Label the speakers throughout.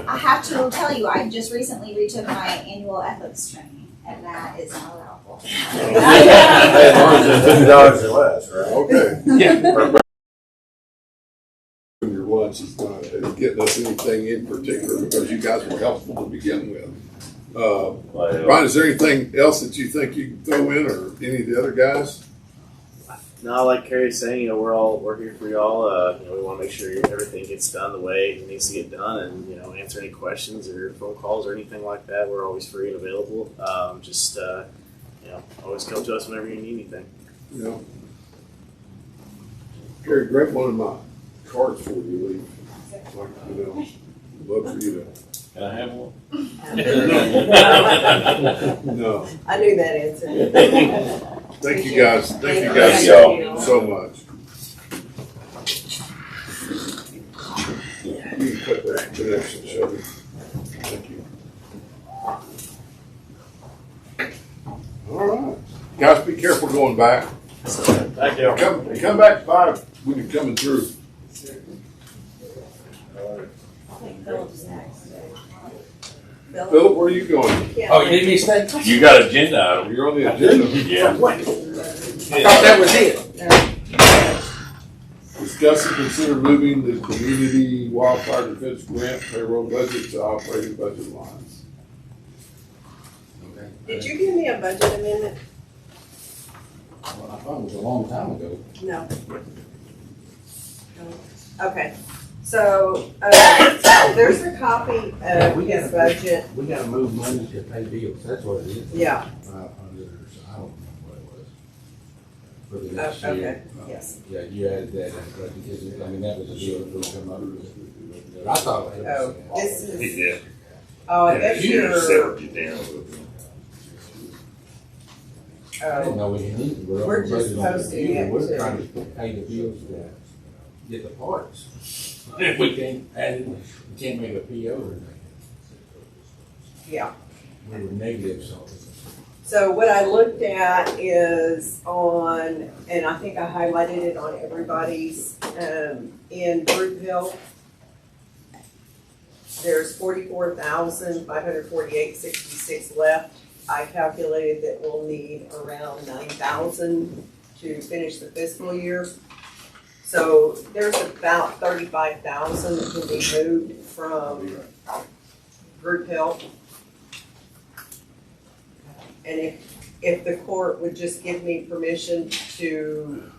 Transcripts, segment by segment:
Speaker 1: have to tell you, I just recently retook my annual ethics training, and that is not allowable.
Speaker 2: As long as it's fifty dollars or less, right?
Speaker 3: Okay.
Speaker 4: Yeah.
Speaker 3: And Your lunch is not uh, getting us anything in particular because you guys were helpful to begin with. Uh, Brian, is there anything else that you think you can throw in or any of the other guys?
Speaker 5: No, like Carrie's saying, you know, we're all we're here for y'all. Uh, you know, we want to make sure everything gets done the way it needs to get done, and you know, answer any questions or phone calls or anything like that. We're always free and available. Um, just uh, you know, always come to us whenever you need anything.
Speaker 3: You know? Gary, grab one of my cards before you leave. Like, you know, love for you
Speaker 4: Can I have one?
Speaker 3: to, no.
Speaker 6: I knew that answer.
Speaker 3: Thank you guys, thank you guys
Speaker 4: Thank
Speaker 3: so, so much. You can cut that connection, Shelby. Thank you. All right, guys, be careful going back.
Speaker 2: Thank you.
Speaker 3: Come, come back to five when you're coming through. Philip, where are you going?
Speaker 4: Oh, you need me to stay? You got agenda item.
Speaker 3: You're on the agenda.
Speaker 4: Yeah.
Speaker 2: I thought that was it.
Speaker 3: Discuss and consider moving the community wildfire defense grant payroll budget to operating budget lines.
Speaker 6: Did you give me a budget amendment?
Speaker 7: Well, I thought it was a long time ago.
Speaker 6: No. Okay, so, uh, there's a copy
Speaker 7: Yeah,
Speaker 6: of
Speaker 7: we got
Speaker 6: his
Speaker 7: it.
Speaker 6: budget,
Speaker 7: We gotta move money to pay bills, that's what it is.
Speaker 6: yeah,
Speaker 7: Five hundred or so, I don't remember what it was. For the
Speaker 6: oh,
Speaker 7: next
Speaker 6: okay,
Speaker 7: year. Uh,
Speaker 6: yes,
Speaker 7: Yeah, you added that, in, but because, I mean, that was a deal that we come up with. But I thought. it was- uh,
Speaker 6: Oh, this is-
Speaker 4: Yeah.
Speaker 6: oh, and that's
Speaker 4: You
Speaker 6: your,
Speaker 4: just
Speaker 6: oh,
Speaker 4: settled you down a little bit.
Speaker 6: uh,
Speaker 7: I didn't know we needed.
Speaker 6: We're just posting it
Speaker 7: We're
Speaker 6: to-
Speaker 7: trying to pay the bills to get the parts. We can't add it, we can't make a PO or anything.
Speaker 6: yeah.
Speaker 7: We were negative, so.
Speaker 6: So what I looked at is on, and I think I highlighted it on everybody's, um, in Brookville. There's forty-four thousand, five hundred forty-eight, sixty-six left. I calculated that we'll need around nine thousand to finish the fiscal year. So there's about thirty-five thousand that can be moved from Brookville and if, if the court would just give me permission to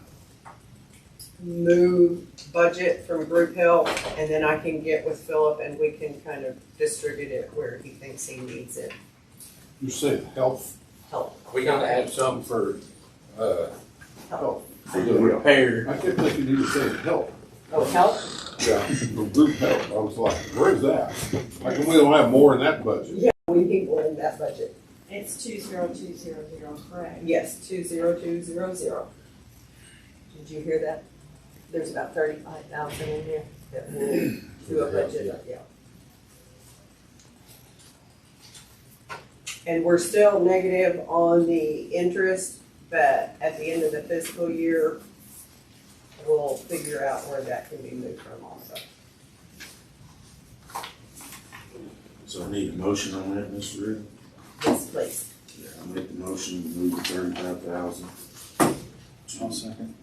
Speaker 6: move budget from group help, and then I can get with Philip and we can kind of distribute it where he thinks he needs it,
Speaker 3: You said health,
Speaker 6: help,
Speaker 7: We gotta have some for, uh,
Speaker 6: help.
Speaker 7: repair.
Speaker 3: I kept thinking you said health.
Speaker 6: Oh, help?
Speaker 3: Yeah, for group health, I was like, where's that? How come we don't have more in that budget?
Speaker 6: We need one in that budget.
Speaker 8: It's two zero two zero zero, correct?
Speaker 6: Yes, two zero two zero zero. Did you hear that? There's about thirty-five thousand in there that will do a budget, yeah. And we're still negative on the interest, but at the end of the fiscal year, we'll figure out where that can be moved from also.
Speaker 9: So I need a motion on that, Mr. Riddle?
Speaker 6: Yes, please.
Speaker 9: Yeah. I make the motion to move the thirty-five thousand. I'll second.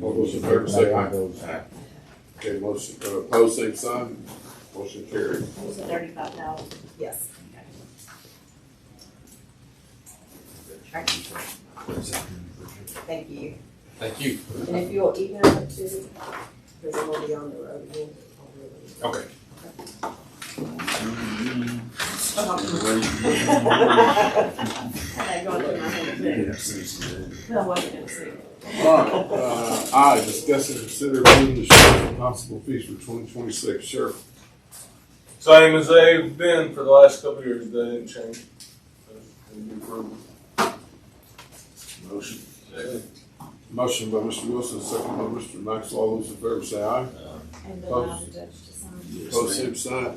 Speaker 3: All those in favor say aye. Okay, motion, uh, pose same sign, motion carried.
Speaker 8: It was thirty-five thousand.
Speaker 6: Yes. Thank you.
Speaker 7: Thank you.
Speaker 6: And if you'll email it to, because it will be on the road again.
Speaker 3: Okay.
Speaker 8: Had that gone through my head too. No, I wasn't gonna say. it.
Speaker 3: All right, uh, I discuss and consider moving the sheriff and constable fees for twenty twenty-six. Sheriff,
Speaker 10: Same as they've been for the last couple of years, they didn't change.
Speaker 9: Motion.
Speaker 3: motion by Mr. Wilson, second by Mr. Maxwell. All those in favor say aye.
Speaker 8: And then um, I'll judge to sign.
Speaker 9: Yes,
Speaker 3: Pose
Speaker 9: ma'am.
Speaker 3: same sign.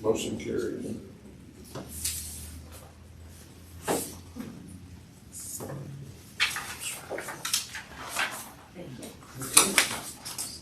Speaker 3: Motion carried.